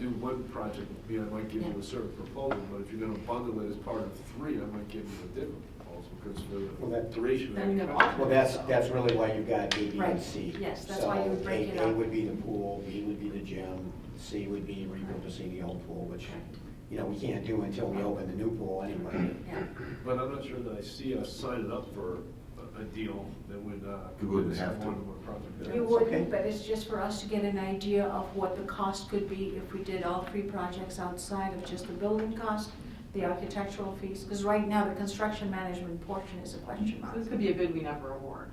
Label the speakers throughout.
Speaker 1: do one project, I mean, I might give you
Speaker 2: Yeah.
Speaker 1: a certain proposal, but if you're gonna bundle it as part of three, I might give you a different proposal, because for
Speaker 3: Well,
Speaker 1: the
Speaker 3: that-
Speaker 1: duration
Speaker 2: Then
Speaker 1: of
Speaker 2: you
Speaker 1: that
Speaker 2: have
Speaker 1: contract.
Speaker 3: Well, that's, that's really why you've got A, B,
Speaker 2: Right.
Speaker 3: and C.
Speaker 2: Yes, that's why you would
Speaker 3: So
Speaker 2: break
Speaker 3: A-
Speaker 2: it
Speaker 3: A
Speaker 2: up.
Speaker 3: would be the pool, B would be the gym, C would be repurposing the old pool, which,
Speaker 2: Correct.
Speaker 3: you know, we can't do until we open the new pool anyway.
Speaker 2: Yeah,
Speaker 1: But I'm not sure that I see us signing up for a- a deal that would, uh.
Speaker 4: We
Speaker 1: commit
Speaker 4: wouldn't
Speaker 1: us
Speaker 4: have to.
Speaker 1: One more project.
Speaker 2: you
Speaker 3: it's okay.
Speaker 2: wouldn't, but it's just for us to get an idea of what the cost could be if we did all three projects outside of just the building cost, the architectural fees, because right now the construction management portion is a question mark.
Speaker 5: This could be a bid we never award.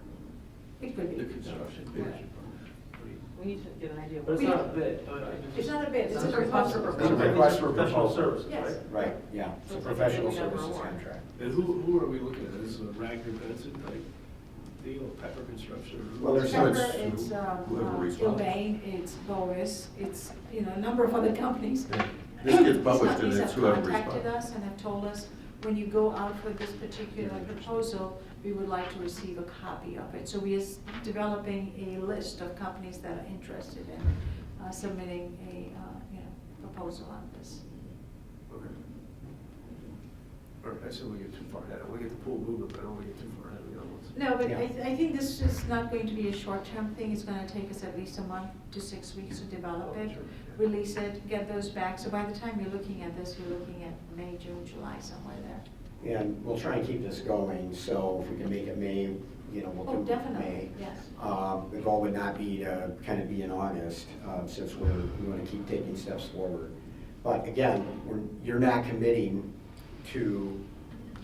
Speaker 2: It could
Speaker 1: The
Speaker 2: be.
Speaker 1: construction.
Speaker 2: Right.
Speaker 5: We need to get an idea. of
Speaker 6: But it's
Speaker 5: what-
Speaker 6: not a bid.
Speaker 2: It's not a bid, it's a
Speaker 5: It's a request for
Speaker 2: proposal.
Speaker 3: It's a request for
Speaker 6: Professional
Speaker 3: proposal.
Speaker 6: services,
Speaker 2: Yes.
Speaker 6: right?
Speaker 3: Right, yeah, it's a
Speaker 5: Looks like
Speaker 3: professional
Speaker 5: we have a
Speaker 3: services
Speaker 5: warrant.
Speaker 3: contract.
Speaker 1: And who, who are we looking at? Is it Ragnar Benson type deal, Pepper Construction? or who
Speaker 3: Well,
Speaker 1: else?
Speaker 3: there's
Speaker 2: Pepper,
Speaker 3: some-
Speaker 2: it's, um,
Speaker 4: Whoever
Speaker 2: uh,
Speaker 4: responds.
Speaker 2: Gilbane, it's Boris, it's, you know, a number of other companies.
Speaker 4: This
Speaker 2: These
Speaker 4: gets published and
Speaker 2: companies
Speaker 4: it's
Speaker 2: have
Speaker 4: whoever
Speaker 2: contacted
Speaker 4: responds.
Speaker 2: us and have told us, when you go out for this particular proposal, we would like to receive a copy of it. So we are s- developing a list of companies that are interested in uh, submitting a, uh, you know, proposal on this.
Speaker 1: Okay. All right, I said we get too far ahead. I want to get the pool moving, but I don't want to get too far ahead of the other ones.
Speaker 2: No, but
Speaker 3: Yeah.
Speaker 2: I, th- I think this is not going to be a short-term thing, it's gonna take us at least a month to six weeks to develop
Speaker 1: Oh,
Speaker 2: it,
Speaker 1: sure.
Speaker 2: release it, get those back, so by the time you're looking at this, you're looking at May, June, July, somewhere there.
Speaker 3: And we'll try and keep this going, so if we can make it May, you know, we'll
Speaker 2: Oh,
Speaker 3: do May.
Speaker 2: definitely, yes.
Speaker 3: Um, The goal would not be to kind of be in August, um, since we're, we want to keep taking steps forward. But again, we're, you're not committing to,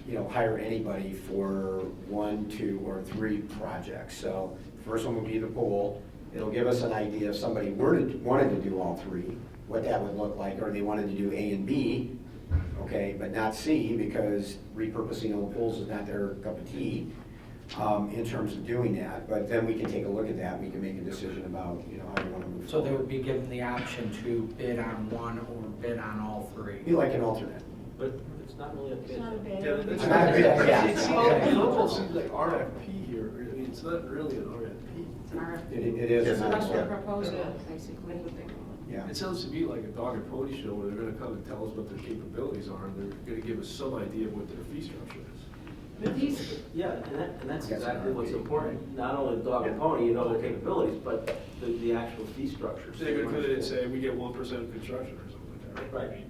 Speaker 3: you know, hire anybody for one, two, or three projects. So first one would be the pool. It'll give us an idea if somebody were to, wanted to do all three, what that would look like, or they wanted to do A and B, okay, but not C because repurposing old pools is not their cup of tea um, in terms of doing that, but then we can take a look at that, we can make a decision about, you know, how we want to move
Speaker 7: So
Speaker 3: forward.
Speaker 7: they would be given the option to bid on one or bid on all three?
Speaker 3: Be like an alternate.
Speaker 6: But it's not really a bid.
Speaker 1: Yeah, that- that's-
Speaker 3: I'm not big, yeah.
Speaker 1: It seems- It almost seems like RFP here, I mean, it's not really an RFP.
Speaker 5: It's an RFP.
Speaker 3: It it is.
Speaker 4: Yes,
Speaker 3: an
Speaker 2: Request for
Speaker 3: alternate.
Speaker 2: proposal, basically.
Speaker 5: That's what they call it.
Speaker 3: Yeah,
Speaker 1: It sounds to me like a dog and pony show where they're gonna come and tell us what their capabilities are, and they're gonna give us some idea of what their fee structure is.
Speaker 6: But these- Yeah, and that, and that's
Speaker 3: Yes,
Speaker 6: exactly what's
Speaker 3: RFP.
Speaker 6: important, not only the dog and pony, you know, their capabilities, but the, the actual fee structure.
Speaker 1: So they're gonna put it and say, we get one percent of construction or something like that, right?
Speaker 6: Right.
Speaker 2: Right.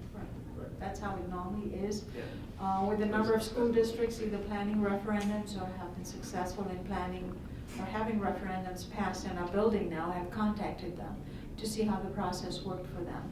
Speaker 2: That's how it normally is.
Speaker 1: Yeah.
Speaker 2: Uh, With a number of school districts either planning referendums or have been successful in planning or having referendums passed and are building now, I've contacted them to see how the process worked for them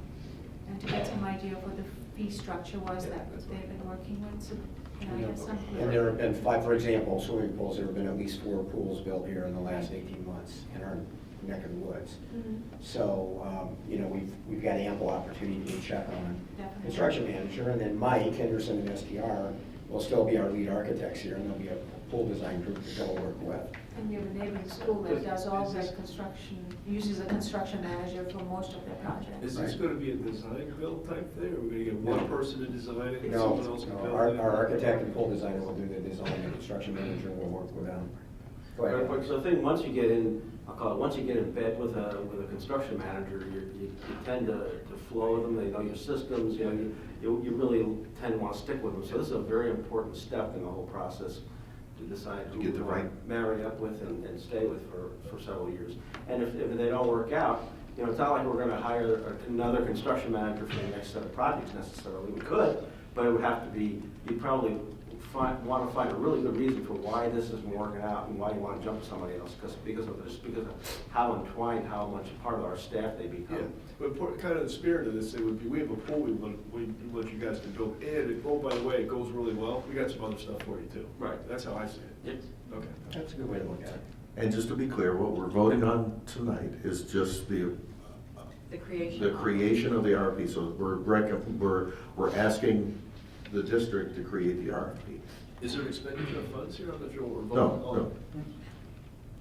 Speaker 2: and to get some idea of what the fee structure was
Speaker 1: Yeah,
Speaker 2: that
Speaker 1: that's
Speaker 2: they've been working with, so, you know, I guess some.
Speaker 3: and there have been five, for example, swimming pools, there have been at least four pools built here in the last eighteen months in our neck of the woods.
Speaker 2: Mhm.
Speaker 3: So, um, you know, we've, we've got ample opportunity to check on
Speaker 2: Definitely.
Speaker 3: construction manager, and then Mike Henderson and STR will still be our lead architects here, and there'll be a pool design group that they'll work with.
Speaker 2: And you have a neighboring school that does all their construction, uses a construction manager for most of their projects.
Speaker 1: Is this
Speaker 3: Right.
Speaker 1: gonna be a design build type thing, or we're gonna get
Speaker 3: No.
Speaker 1: one person to design it and
Speaker 3: No,
Speaker 1: someone else to
Speaker 3: no,
Speaker 1: build it?
Speaker 3: our, our architect and pool designer will do the design, and construction manager will work with them. Go
Speaker 6: Right,
Speaker 3: ahead.
Speaker 6: but the thing, once you get in, I'll call it, once you get in bed with a, with a construction manager, you, you you tend to, to flow with them, they know your systems, you know, you, you you really tend to want to stick with them. So this is a very important step in the whole process to decide who
Speaker 4: get the
Speaker 6: you wanna
Speaker 4: right-
Speaker 6: marry up with and, and stay with for, for several years. And if, if they don't work out, you know, it's not like we're gonna hire another construction manager for the next set of projects necessarily. We could, but it would have to be, you'd probably find, wanna find a really good reason for why this isn't working out and why you wanna jump to somebody else, because, because of this, because of how entwined, how much part of our staff they
Speaker 1: Yeah,
Speaker 6: become.
Speaker 1: but part- kind of the spirit of this, it would be, we have a pool we want, we want you guys to build, and, it- oh, by the way, it goes really well, we got some other stuff for you too.
Speaker 6: Right.
Speaker 1: That's how I see it.
Speaker 6: Yes.
Speaker 1: Okay.
Speaker 3: That's a good way to look at it.
Speaker 4: And just to be clear, what we're voting on tonight is just the,
Speaker 5: The creation.
Speaker 4: the
Speaker 5: of-
Speaker 4: creation of the RFP. So we're, rec- we're, we're asking the district to create the RFP.
Speaker 1: Is there expenditure of funds here? I'm not sure what we're voting
Speaker 4: No,
Speaker 1: on.
Speaker 4: no.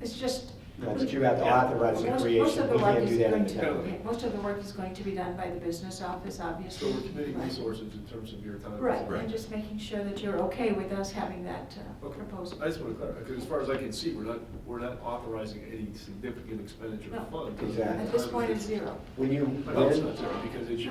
Speaker 2: It's just.
Speaker 3: No, but you have to authorize the
Speaker 2: Most- most
Speaker 3: creation.
Speaker 2: of the
Speaker 3: You can't
Speaker 2: work
Speaker 3: do
Speaker 2: is
Speaker 3: that
Speaker 2: going
Speaker 3: in
Speaker 2: to-
Speaker 3: town.
Speaker 2: yeah, Most of the work is going to be done by the business office,
Speaker 1: So
Speaker 2: obviously.
Speaker 1: we're committing
Speaker 2: Right.
Speaker 1: resources in terms of your time.
Speaker 2: Right,
Speaker 4: Right.
Speaker 2: and just making sure that you're okay with us having that uh,
Speaker 1: Okay,
Speaker 2: proposal.
Speaker 1: I just want to clarify, because as far as I can see, we're not, we're not authorizing any significant expenditure
Speaker 2: No.
Speaker 1: of funds.
Speaker 3: Exactly.
Speaker 2: At this point, it's zero.
Speaker 3: When you,
Speaker 1: But it's
Speaker 3: when-
Speaker 1: not zero, because it's